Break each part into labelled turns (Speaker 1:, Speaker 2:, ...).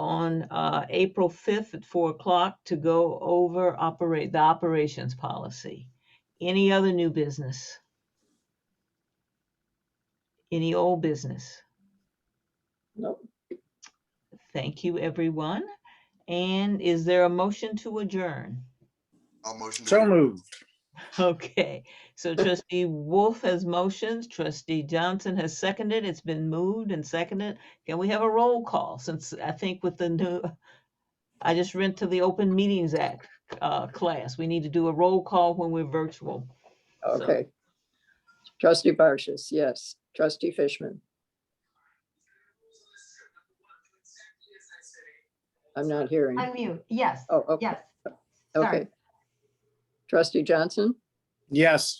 Speaker 1: on uh, April 5th at 4 o'clock to go over operate, the operations policy. Any other new business? Any old business?
Speaker 2: Nope.
Speaker 1: Thank you, everyone. And is there a motion to adjourn?
Speaker 3: I'll motion. to
Speaker 2: So
Speaker 3: adjourn.
Speaker 2: moved.
Speaker 1: Okay, so trustee Wolf has motioned, trustee Johnson has seconded, it's been moved and seconded. Can we have a roll call since I think with the new, I just went to the Open Meetings Act uh, class. We need to do a roll call when we're virtual. So-
Speaker 4: Okay. Trustee Barshis, yes. Trustee Fishman. I'm not hearing.
Speaker 5: Unmute, yes,
Speaker 4: Oh, okay,
Speaker 5: yes. Sorry.
Speaker 4: okay. Trustee Johnson,
Speaker 2: Yes.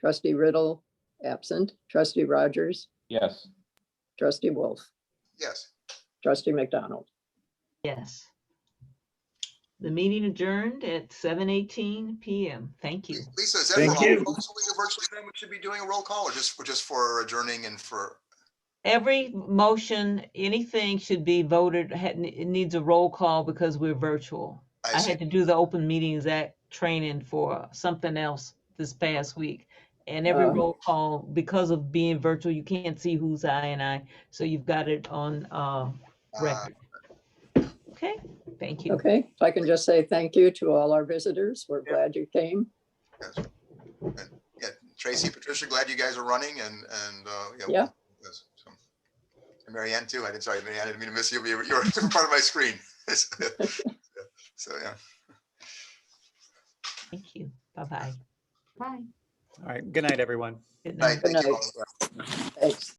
Speaker 4: trustee Riddle, absent. Trustee Rogers,
Speaker 6: Yes.
Speaker 4: trustee Wolf,
Speaker 3: Yes.
Speaker 4: trustee McDonald.
Speaker 1: Yes. The meeting adjourned at 7:18 PM. Thank you.
Speaker 3: Lisa, is that for
Speaker 2: Thank
Speaker 3: all
Speaker 2: you.
Speaker 3: folks doing a virtual thing? We should be doing a roll call or just, or just for adjourning and for,
Speaker 1: Every motion, anything should be voted, ha- it needs a roll call because we're virtual.
Speaker 3: I
Speaker 1: I
Speaker 3: see.
Speaker 1: had to do the Open Meetings Act training for something else this past week. And every
Speaker 4: Oh.
Speaker 1: roll call, because of being virtual, you can't see who's I and I, so you've got it on, uh,
Speaker 3: Uh,
Speaker 1: record. Okay, thank you.
Speaker 4: Okay, if I can just say thank you to all our visitors. We're glad you came.
Speaker 3: Yeah, Tracy, Patricia, glad you guys are running and, and, uh, you know,
Speaker 4: Yeah.
Speaker 3: yes, so. And Mary Ann too. I didn't, sorry, Mary Ann, I didn't mean to miss you. You were, you were part of my screen. So, yeah.
Speaker 1: Thank you. Bye-bye.
Speaker 5: Bye.
Speaker 7: All right. Good night, everyone.
Speaker 1: Good
Speaker 3: All right,
Speaker 1: night.
Speaker 3: thank you
Speaker 4: night.
Speaker 3: all.
Speaker 4: Thanks.